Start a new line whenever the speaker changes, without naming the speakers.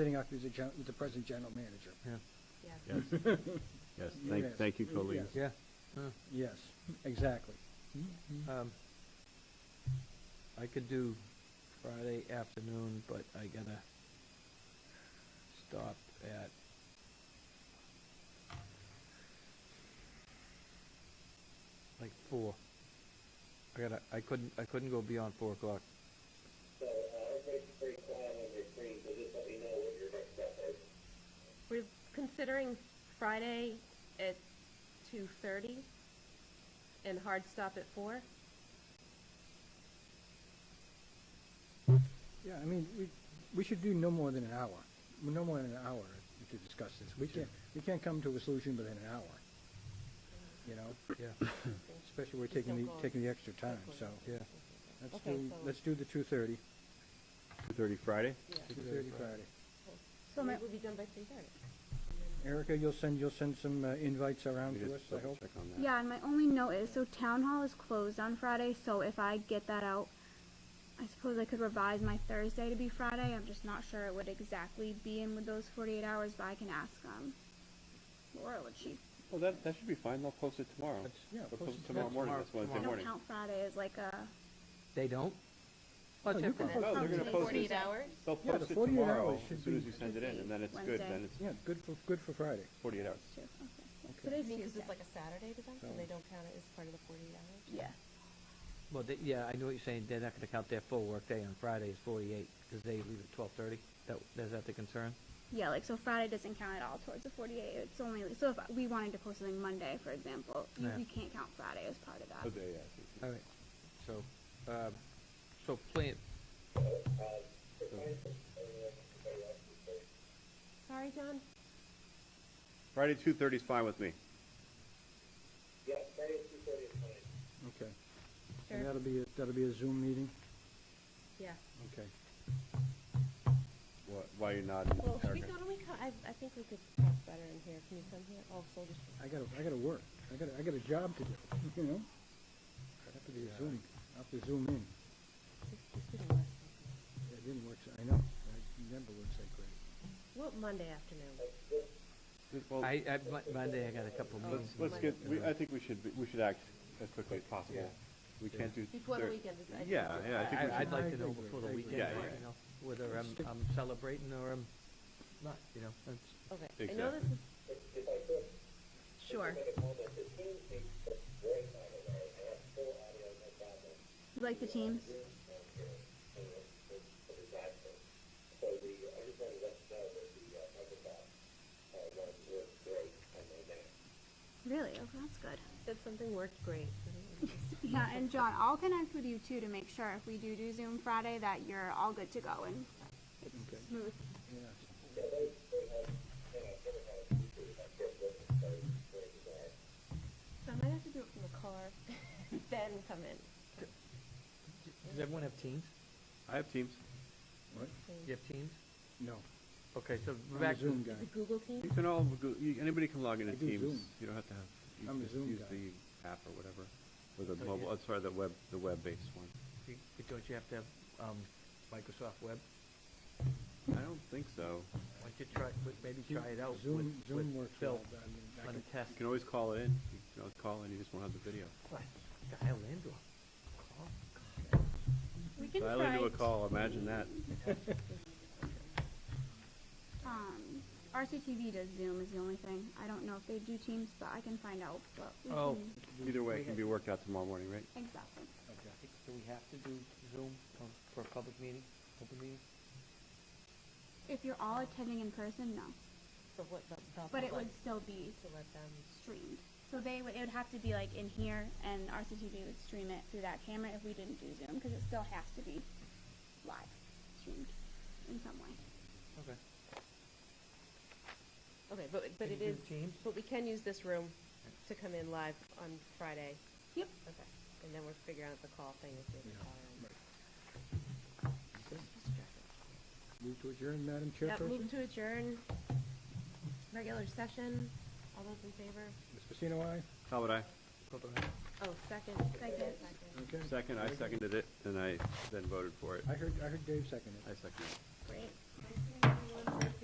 sitting out through the gen, the present general manager.
Yes. Yes,
Yes.
thank, thank you,
Yes.
Colleen.
Yeah.
Yes, exactly.
Um, I could do Friday afternoon, but I gotta stop at like four. I gotta, I couldn't, I couldn't go beyond four o'clock.
So, uh, everybody's very quiet on your screen, so just let me know what your next step is.
We're considering Friday at two thirty and hard stop at four.
Yeah, I mean, we, we should do no more than an hour, no more than an hour to discuss this. We can't, we can't come to a solution within an hour, you know,
Yeah,
especially we're taking the, taking the extra time, so.
yeah.
Let's
Okay,
do,
so-
let's do the two thirty.
Two thirty Friday?
Two thirty Friday.
So it will be done by three thirty.
Erica, you'll send, you'll send some uh, invites around
Let me
to us,
just
I
double
hope.
check on that.
Yeah, and my only note is, so town hall is closed on Friday, so if I get that out, I suppose I could revise my Thursday to be Friday. I'm just not sure it would exactly be in with those 48 hours, but I can ask um, Laura what she.
Well, that, that should be fine, they'll post it tomorrow.
That's- yeah,
They'll
post
post
it
it tomorrow morning,
tomorrow-
that's Wednesday
I don't
morning.
count Friday as like a.
They don't?
Oh, you can
No,
post
they're
it.
gonna post
Forty-eight
it,
hours?
they'll
Yeah,
post
the
it
48
tomorrow,
hours should
as soon as
be-
you send it in, and then it's good, then
Wednesday.
it's
Yeah, good for, good for Friday.
forty-eight hours.
Two. Okay. Yeah,
Okay.
Today's
Because
Tuesday.
it's like a Saturday to them, so they don't count it as part of the forty-eight hours?
yeah.
Well, they, yeah, I know what you're saying, they're not gonna count their full workday on Friday as forty-eight, because they leave at twelve-thirty, that, is that the concern?
Yeah, like so Friday doesn't count at all towards the 48. It's only so if we wanted to post something Monday, for example, you,
Yeah.
you can't count Friday as part of that.
Okay, yeah, I see.
All right, so, um, so plan,
Sorry, John?
Friday, two thirty is fine with me.
Yeah, Friday, two thirty is fine.
Okay. And that'll be, a- that'll be a Zoom meeting?
Yeah.
Okay.
Wh- While you're nodding,
Well, should we
Erica.
go to, we, co- I, I think we could talk better in here, can you come here? Oh, soldiers.
I gotta, I gotta work. I gotta, I got a job to do, you know? I have to be Zoom, I have to Zoom in. It didn't work, so- I know, it never works that great.
What, Monday afternoon?
Well,
I, I, Mon- Monday I got a couple meetings.
let's get, we, I think we should, be- we should act as quickly as possible. We can't do.
Before the
thir-
weekend, I think.
Yeah, yeah, I think we
I, I'd
should,
like to
I
know
agree,
before the
I agree.
weekend,
Yeah, yeah.
you know, whether I'm,
Stick-
I'm celebrating or I'm not, you know, that's.
Okay, I know this
Exactly.
is. Sure.
You like the teams? Really? Okay, that's good.
Said something worked great. Mm-hmm.
Yeah, and John, I'll connect with you too to make sure if we do do Zoom Friday that you're all good to go and it's
Okay.
smooth.
Yeah.
So I might have to do it from the car, then come in.
Does everyone have teams?
I have teams.
What?
You have teams?
No,
Okay, so
I'm a
back to,
Zoom guy.
The Google team?
You can all, go- you- anybody can log into
I do
Teams.
Zoom.
You don't have to
I'm
have,
a
you just
Zoom
use
guy.
the app or whatever. Or the
Okay.
mobile, oh, sorry, the web, the web-based one.
you- you- don't you have to have, um, Microsoft Web?
I don't think so.
Why don't you try, but maybe try it out with,
Zoom, Zoom
with
works well,
Phil
but I mean, I
on a
can,
test.
You can always call in. You can always call in, you just won't have the video.
What? Dial into a call?
We can
Dial into a call, imagine that.
Um, RCTV does Zoom is the only thing. I don't know if they do Teams, but I can find out. But we
Oh,
can-
Either way, it can be worked out tomorrow morning, right?
exactly.
okay.
do we have to do Zoom um, for a public meeting, open meeting?
If you're all attending in person, no,
For what, the, the.
but it
public,
would still be
To let them.
streamed. So they would it would have to be like in here, and RCTV would stream it through that camera if we didn't do Zoom because it still has to be live streamed in some way.
Okay.
Okay, but,
Can
but it
you do
is,
Teams?
but we can use this room to come in live on Friday.
Yep.
Okay, and then we're figuring out the call thing if we have to call in.
Move to adjourn, Madam
Yeah,
Chairperson?
move to adjourn, regular session, all those in favor?
Ms. Pacino, aye?
How would I?
Oh, second.
Second.
Okay.
Second, I seconded it, and I then voted for it.
I heard, I heard Dave second it.
I seconded
Great.
it.